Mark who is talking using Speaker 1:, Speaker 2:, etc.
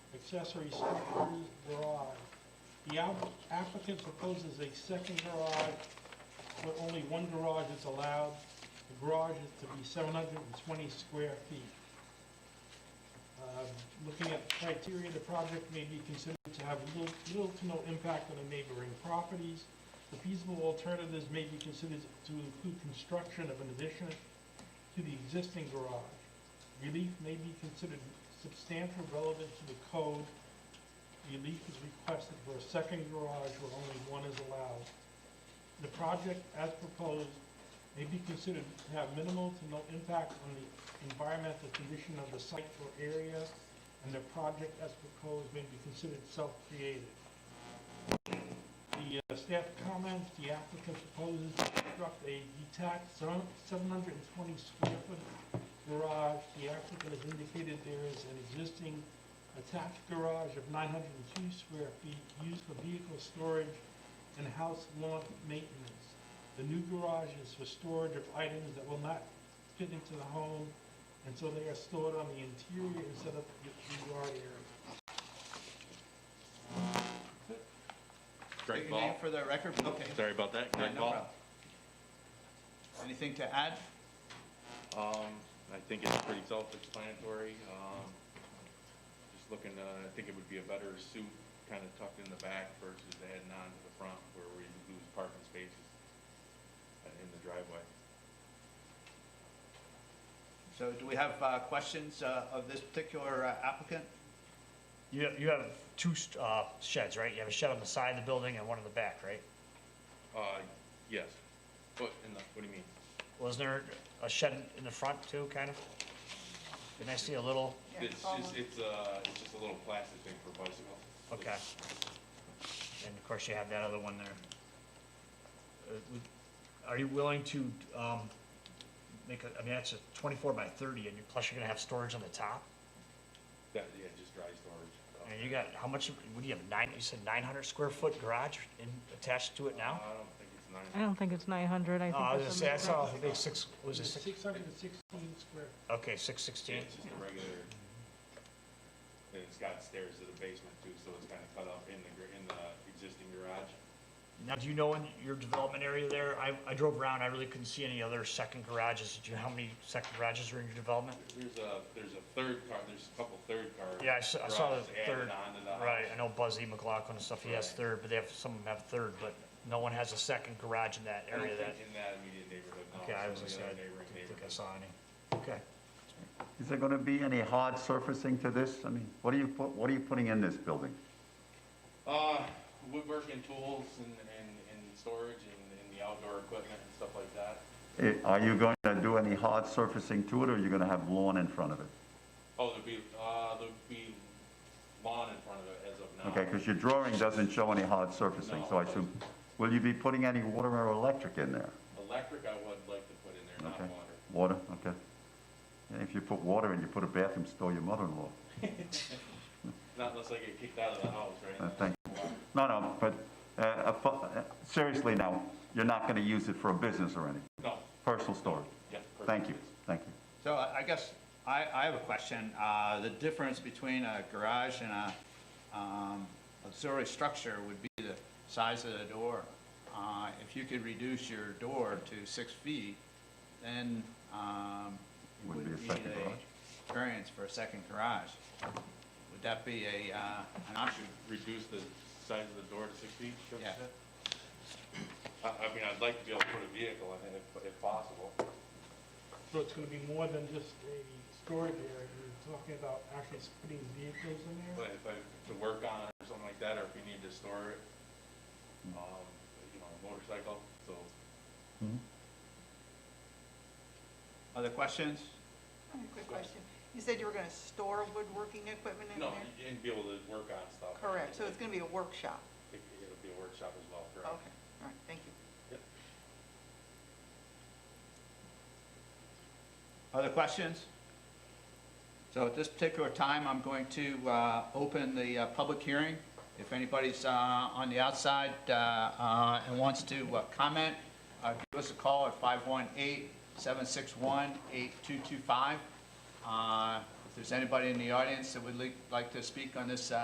Speaker 1: accessory structure garage. The app- applicant proposes a second garage, but only one garage is allowed. The garage is to be 720 square feet. Um, Looking at the criteria, the project may be considered to have little little to no impact on the neighboring properties. The feasible alternatives may be considered to include construction of an addition to the existing garage. Relief may be considered substantial relevant to the code. Relief is requested for a second garage where only one is allowed. The project, as proposed, may be considered to have minimal to no impact on the environmental condition of the site or area, and the project, as proposed, may be considered self-created. The uh, staff comments, the applicant proposes to construct a detached seven- 720 square foot garage. The applicant has indicated there is an existing attached garage of 902 square feet used for vehicle storage and house lawn maintenance. The new garage is for storage of items that will not fit into the home, and so they are stored on the interior instead of the the yard area.
Speaker 2: Greg
Speaker 3: Your name
Speaker 2: Ball.
Speaker 3: for the record? Okay.
Speaker 2: Sorry about that,
Speaker 3: Yeah,
Speaker 2: Greg
Speaker 3: no
Speaker 2: Ball.
Speaker 3: problem. Anything to add?
Speaker 2: Um, I think it's pretty self-explanatory. Um, just looking, uh, I think it would be a better suit kind of tucked in the back versus adding on to the front where we lose parking spaces uh, in the driveway.
Speaker 3: So do we have uh, questions uh, of this particular uh, applicant?
Speaker 4: You, you have two st- uh, sheds, right? You have a shed on the side of the building and one in the back, right?
Speaker 2: Uh, yes. What, in the, what do you mean?
Speaker 4: Wasn't there a shed in the front too, kind of? Didn't I see a little?
Speaker 2: It's just, it's, uh, it's just a little plastic thing for bicycles.
Speaker 4: Okay. And of course, you have that other one there. Uh, would- Are you willing to um, make a, I mean, that's a 24 by 30, and you- plus you're going to have storage on the top?
Speaker 2: That, yeah, just dry storage.
Speaker 4: And you got, how much, what do you have, nine, you said 900 square foot garage in- attached to it
Speaker 2: Uh, I
Speaker 4: now?
Speaker 2: don't think it's nine.
Speaker 5: I don't think it's 900, I
Speaker 4: No, Oh, I was
Speaker 5: think
Speaker 4: gonna
Speaker 5: it's a
Speaker 4: say, I saw,
Speaker 5: mix.
Speaker 4: I think six, was it six?
Speaker 1: 616 square.
Speaker 4: Okay,
Speaker 2: Yeah,
Speaker 4: 616.
Speaker 2: It's just a regular, and it's got stairs to the basement too, so it's kind of cut off in the, gr- in the existing garage.
Speaker 4: Now, do you know in your development area there, I, I drove around, I really couldn't see any other second garages. Do you know how many second garages are in your development?
Speaker 2: There's a, there's a third car, there's a couple third car.
Speaker 4: Yeah, I s- I saw the
Speaker 2: garages added
Speaker 4: third.
Speaker 2: onto the
Speaker 4: Right,
Speaker 2: house.
Speaker 4: I know Buzzy McLaughlin and stuff, he has
Speaker 2: Right.
Speaker 4: third, but they have, some of them have third, but no one has a second garage in that
Speaker 2: I don't
Speaker 4: area that,
Speaker 2: think In that immediate neighborhood, no.
Speaker 4: okay, I was
Speaker 2: it's
Speaker 4: gonna
Speaker 2: in the other
Speaker 4: say, I
Speaker 2: neighboring
Speaker 4: didn't think I
Speaker 2: neighborhood.
Speaker 4: saw any. Okay.
Speaker 6: Is there going to be any hard surfacing to this? I mean, what are you, put- what are you putting in this building?
Speaker 2: Uh, woodworking tools and, and, and storage and, and the outdoor equipment and stuff like that.
Speaker 6: Eh, Are you going to do any hard surfacing to it, or are you going to have lawn in front of it?
Speaker 2: Oh, there'd be, uh, there'd be lawn in front of it as of now.
Speaker 6: Okay, because your drawing doesn't show any hard surfacing, so I assume, will you be putting any water or electric in there?
Speaker 2: Electric I would like to put in there, not
Speaker 6: Okay.
Speaker 2: water.
Speaker 6: Water, okay. And If you put water in, you put a bathroom store, your mother-in-law.
Speaker 2: Not unless I get kicked out of the house,
Speaker 6: Uh,
Speaker 2: right?
Speaker 6: Thank No, no, but uh, a fu- uh, seriously now, you're not going to use it for a business or any,
Speaker 2: No,
Speaker 6: personal storage?
Speaker 2: yeah. perfect.
Speaker 6: Thank you, thank you.
Speaker 3: So I I guess I, I have a question. Uh, The difference between a garage and a um, auxiliary structure would be the size of the door. Uh, If you could reduce your door to six feet, then um, you
Speaker 6: Wouldn't
Speaker 3: wouldn't
Speaker 6: be a
Speaker 3: need
Speaker 6: second garage.
Speaker 3: a variance for a second garage. Would that be a, uh, an option?
Speaker 2: Reduce the size of the door to six feet, is that what you
Speaker 3: Yeah.
Speaker 2: said? I, I mean, I'd like to be able to put a vehicle in it if, if possible.
Speaker 1: So it's going to be more than just a storage area. You're talking about actually putting vehicles in there?
Speaker 2: But if I, to work on it or something like that, or if you need to store it,
Speaker 6: Mm-hmm.
Speaker 2: um, you know, a motorcycle, so.
Speaker 3: Other questions?
Speaker 7: I have a Quick question. You said you were going to store woodworking equipment in
Speaker 2: No,
Speaker 7: there?
Speaker 2: and be able to work on stuff.
Speaker 7: Correct, so it's going to be a workshop?
Speaker 2: It- It'll be a workshop as well,
Speaker 7: Okay,
Speaker 2: correct?
Speaker 7: all right, thank you.
Speaker 3: Other questions? So at this particular time, I'm going to uh, open the uh, public hearing. If anybody's uh, on the outside uh, uh, and wants to uh, comment, uh, give us a call at 518-761-8225. Uh, If there's anybody in the audience that would li- like to speak on this uh,